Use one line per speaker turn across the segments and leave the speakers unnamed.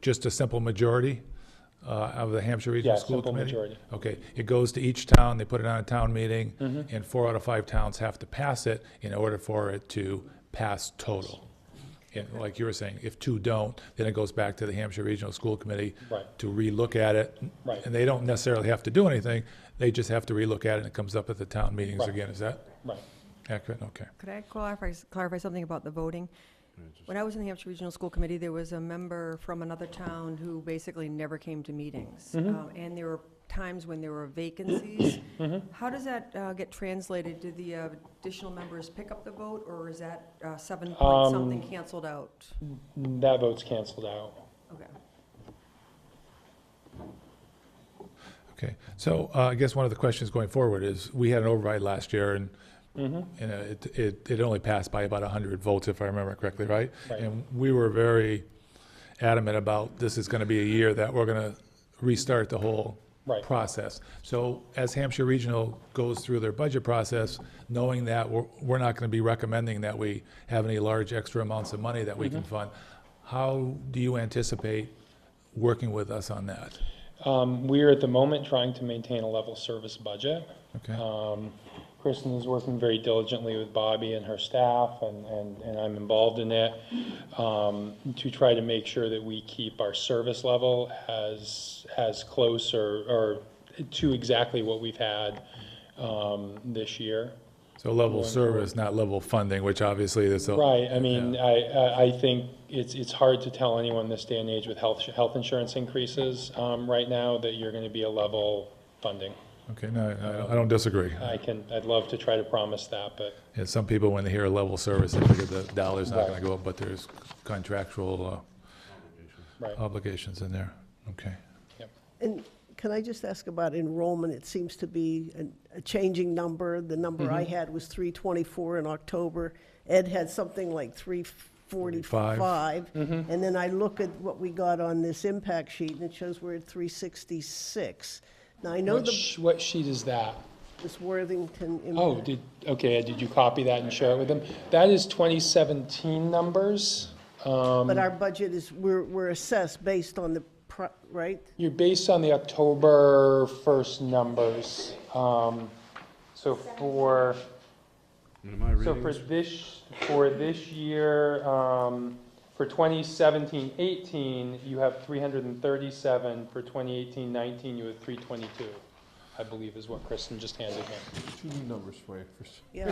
Just a simple majority uh, of the Hampshire Regional
Yeah,
School
simple
Committee?
majority.
Okay, it goes to each town, they put it on a town meeting,
Mm-hmm.
and four out of five towns have to pass it in order for it to pass total. And like you were saying, if two don't, then it goes back to the Hampshire Regional School Committee
Right.
to relook at it.
Right.
And they don't necessarily have to do anything, they just have to relook at it, and it comes up at the town meetings
Right.
again, is that
Right.
accurate? Okay.
Could I clarify, clarify something about the voting? When I was in the Hampshire Regional School Committee, there was a member from another town who basically never came to meetings. Um, And there were times when there were vacancies. How does that uh, get translated? Do the uh, additional members pick up the vote, or is that uh, seven point something canceled out?
That vote's canceled out.
Okay.
Okay, so uh, I guess one of the questions going forward is, we had an override last year, and,
Mm-hmm.
and uh, it, it, it only passed by about 100 votes, if I remember correctly, right?
Right.
And we were very adamant about, this is going to be a year that we're going to restart the whole
Right.
process. So as Hampshire Regional goes through their budget process, knowing that we're, we're not going to be recommending that we have any large extra amounts of money that we
Mm-hmm.
can fund, how do you anticipate working with us on that?
Um, we are at the moment trying to maintain a level service budget.
Okay?
Um, Kristen is working very diligently with Bobby and her staff, and, and, and I'm involved in it, um, to try to make sure that we keep our service level as, as close or, or to exactly what we've had, um, this year.
So level service, not level funding, which obviously this.
Right, I mean, I, I, I think it's, it's hard to tell anyone this day and age with health, health insurance increases, um, right now that you're gonna be a level funding.
Okay, no, I- I don't- I don't disagree.
I can, I'd love to try to promise that, but,
And some people, when they hear level service, they figure the dollar's not going
Right.
to go up, but there's contractual
right,
uh, obligations in there. Okay.
yep.
And can I just ask about enrollment? It seems to be an- a changing number. The number I had was 324 in October. Ed had something like 345. And then I look at what we got on this impact sheet, and it shows we're at 366. Now, I know
What,
the,
sh- what sheet is that?
this Worthington
Oh,
impact,
did, okay, Ed, did you copy that and share it with them? That is twenty seventeen numbers. Um,
but our budget is, we're we're assessed based on the, pro- right?
you're based on the October first numbers, um, so for.
Am I
So
reading
for
this?
this, for this year, um, for 2017, 18, you have 337. For 2018, 19, you have 322, I believe is what Kristen just handed me.
Two new numbers for you. First-
Yeah,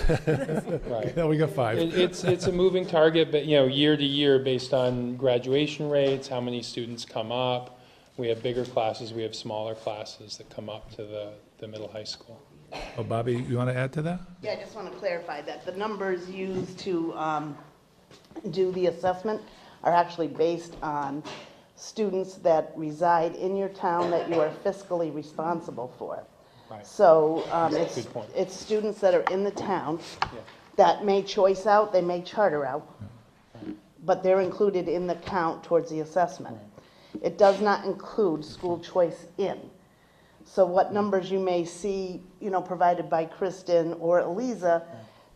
Right.
Yeah, we got
It,
five.
it's, it's a moving target, but, you know, year to year, based on graduation rates, how many students come up. We have bigger classes, we have smaller classes that come up to the, the middle high school.
Oh, Bobby, you want to add to that?
Yeah, I just want to clarify that the numbers used to um, do the assessment are actually based on students that reside in your town that you are fiscally responsible for.
Right.
So um, it's,
Good point.
it's students that are in the town that may choice out, they may charter out, but they're included in the count towards the assessment. It does not include school choice in. So what numbers you may see, you know, provided by Kristen or Eliza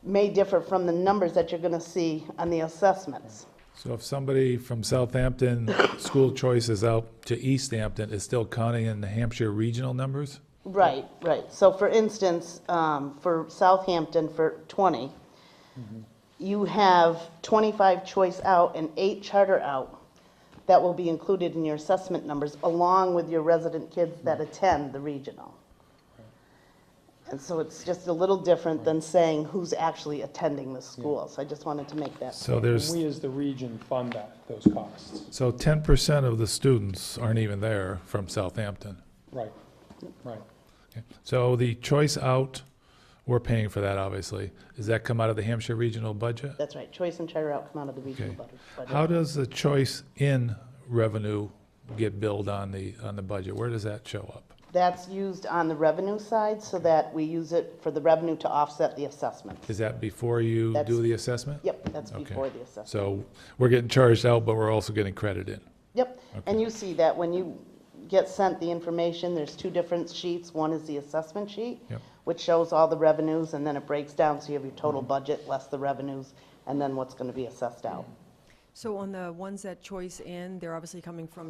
may differ from the numbers that you're gonna see on the assessments.
So if somebody from Southampton, school choice is out to East Hampton, is still counting in the Hampshire regional numbers?
Right, right. So for instance, um, for Southampton for twenty,
Mm-hmm.
you have twenty-five choice out and eight charter out that will be included in your assessment numbers along with your resident kids that
Mm-hmm.
attend the regional. And so it's just a little different than saying who's actually attending the school. So I just wanted to make that
So there's,
We, as the region, fund that, those costs.
so 10% of the students aren't even there from Southampton.
Right, right.
Okay. So the choice out, we're paying for that, obviously. Does that come out of the Hampshire regional budget?
That's right, choice and charter out come out of the regional
Okay.
budget. budget.
How does the choice in revenue get billed on the, on the budget? Where does that show up?
That's used on the revenue side so that we use it for the revenue to offset the assessments.
Is that before you do
That's-
the assessment?
Yep, that's
Okay.
before the assessment.
So we're getting charged out, but we're also getting credit in.
Yep, and you see that when you get sent the information, there's two different sheets. One is the assessment sheet,
Yep.
which shows all the revenues, and then it breaks down, so you have your total budget, less the revenues, and then what's going to be assessed out.
So on the ones that choice in, they're obviously coming from